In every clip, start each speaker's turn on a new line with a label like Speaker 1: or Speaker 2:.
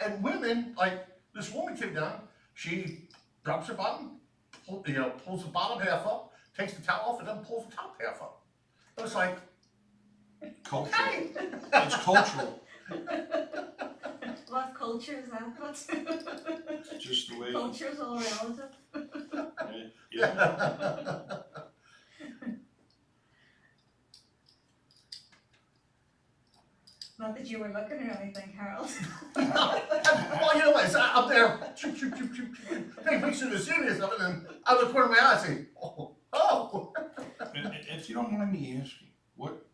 Speaker 1: and women, like, this woman came down, she drops her bottom, pull- you know, pulls the bottom half up, takes the towel off, and then pulls the top half up. It was like,
Speaker 2: Cultural.
Speaker 1: hey,
Speaker 2: It's cultural.
Speaker 3: What culture is that? What's
Speaker 2: It's just the way.
Speaker 3: culture's all relative?
Speaker 2: eh, Yeah.
Speaker 3: Not that you were looking or anything, Harold.
Speaker 1: well, you know what, so I'm there, choop, choop, choop, choop, choop, choop, take pictures of the city and stuff, and then out of the corner of my eye, I say, oh, oh.
Speaker 2: I- I- If you don't mind me asking, what,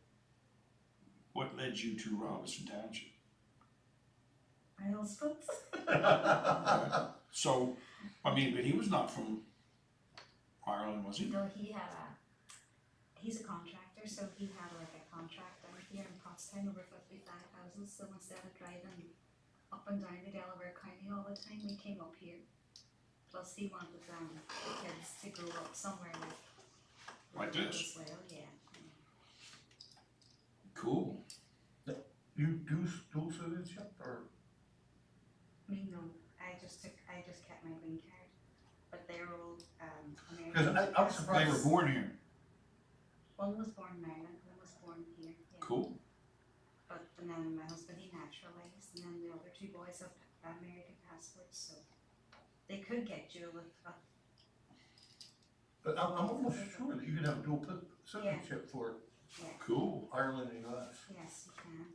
Speaker 2: what led you to Robinson Township?
Speaker 3: Harold Spitz.
Speaker 2: So, I mean, but he was not from Ireland, was he?
Speaker 3: No, he had a, he's a contractor, so he had like a contract down here in Pottstown over fifty-five houses, so instead of driving up and down to Delaware County all the time, we came up here. Plus he wanted um the kids to grow up somewhere like.
Speaker 2: Like this?
Speaker 3: As well, yeah.
Speaker 2: Cool.
Speaker 1: You do dual citizenship, or?
Speaker 3: I mean, no, I just took, I just kept my green card, but they're all um American.
Speaker 1: Because I- I was
Speaker 3: citizens.
Speaker 2: They were born here.
Speaker 3: One was born in Ireland, one was born here, yeah.
Speaker 2: Cool.
Speaker 3: But and then my husband he naturalized, and then the other two boys have American passports, so they could get you with a
Speaker 1: But I'm, I'm almost sure that you could have dual p- citizenship for
Speaker 2: Cool.
Speaker 1: Ireland and US.
Speaker 3: yes, you can.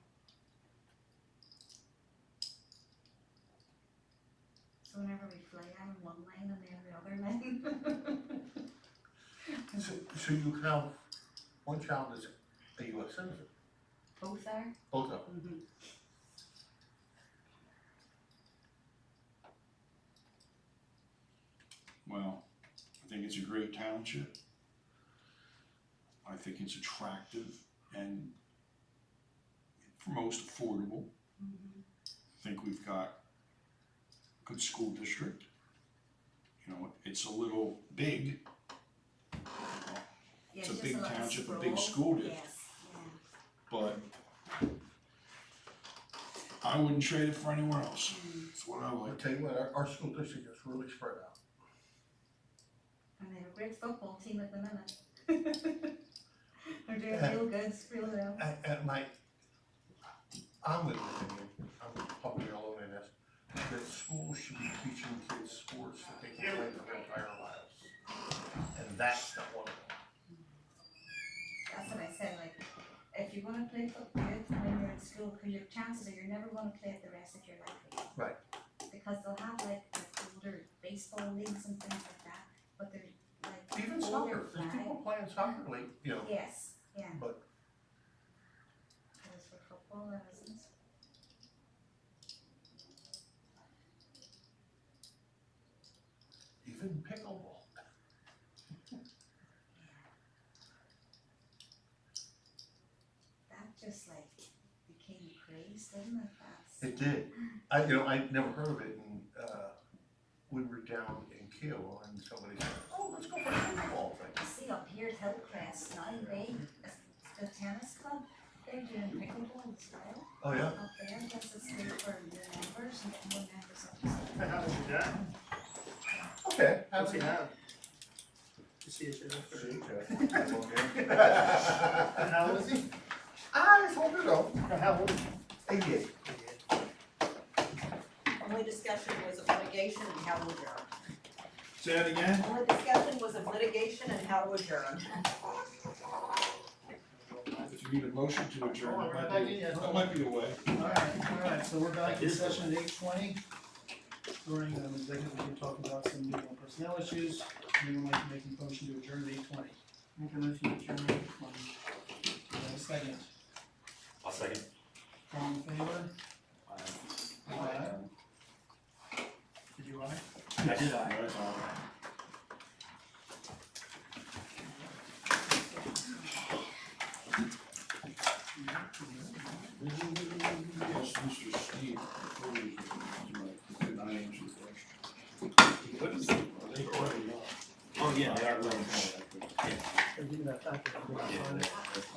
Speaker 3: So whenever we fly, I'm in one lane and then the other lane.
Speaker 1: So, so you can have one child is a US citizen,
Speaker 3: Both are.
Speaker 1: both of them.
Speaker 3: Mm-hmm.
Speaker 2: Well, I think it's a great township. I think it's attractive and for most affordable.
Speaker 3: Mm-hmm.
Speaker 2: I think we've got a good school district. You know, it's a little big.
Speaker 3: Yeah,
Speaker 2: It's a
Speaker 3: just
Speaker 2: big
Speaker 3: lot of
Speaker 2: township, a big
Speaker 3: sprawl.
Speaker 2: school district.
Speaker 3: Yes, yeah.
Speaker 2: but I wouldn't trade it for anywhere else. That's what I
Speaker 1: I'll
Speaker 2: like.
Speaker 1: tell you what, our, our school district is really spread out.
Speaker 3: And they have a great football team at the minute. They're doing real good, real well.
Speaker 1: And, and my, I'm with you, I'm probably alone in this, that schools should be teaching kids sports that they can play their entire lives. And that's not one of them.
Speaker 3: That's what I said, like, if you wanna play football when you're in school, 'cause your chances are you're never gonna play it the rest of your life.
Speaker 1: Right.
Speaker 3: Because they'll have like the older baseball leagues and things like that, but they're like.
Speaker 1: Even
Speaker 3: older
Speaker 1: soccer, there's
Speaker 3: flag.
Speaker 1: people playing soccer league, you know,
Speaker 3: Yes, yeah.
Speaker 1: But-
Speaker 3: That is for football, that isn't.
Speaker 1: even pickleball.
Speaker 3: That just like became crazy, didn't it? That's.
Speaker 1: It did. I, you know, I'd never heard of it and, uh, we were down in Kiel and somebody said, oh, let's go play football thing.
Speaker 3: You see up here at Hillcrest now, they, the tennis club, they're doing pickleball as well.
Speaker 1: Oh, yeah?
Speaker 3: Up there, that's it's good for the members and getting more members up. there.
Speaker 4: How much you got?
Speaker 1: Okay.
Speaker 4: How's he now? You see it there? How old is he?
Speaker 1: I just hope you know,
Speaker 4: How old?
Speaker 1: eight years.
Speaker 5: Only discussion was of litigation and how to adjourn.
Speaker 2: Say that again?
Speaker 5: Only discussion was of litigation and how to adjourn.
Speaker 2: If you need a motion to adjourn,
Speaker 4: Oh,
Speaker 2: that might
Speaker 4: right back
Speaker 2: be,
Speaker 4: in, yeah.
Speaker 2: that might be a way.
Speaker 4: Alright, alright, so we're back in session at eight twenty. During um executive, we can talk about some legal personnel issues, anyone like to make a motion to adjourn at eight twenty? Make a motion to adjourn at eight twenty. second?
Speaker 6: I'll second.
Speaker 4: All in favor? Aye. Did you aye?
Speaker 6: I did I.
Speaker 2: Right on. Yes, Mr. Steve. Could I answer the question? They've already.
Speaker 6: Oh, yeah, they are.
Speaker 2: Yeah.
Speaker 4: Or give me that back.
Speaker 6: Yeah,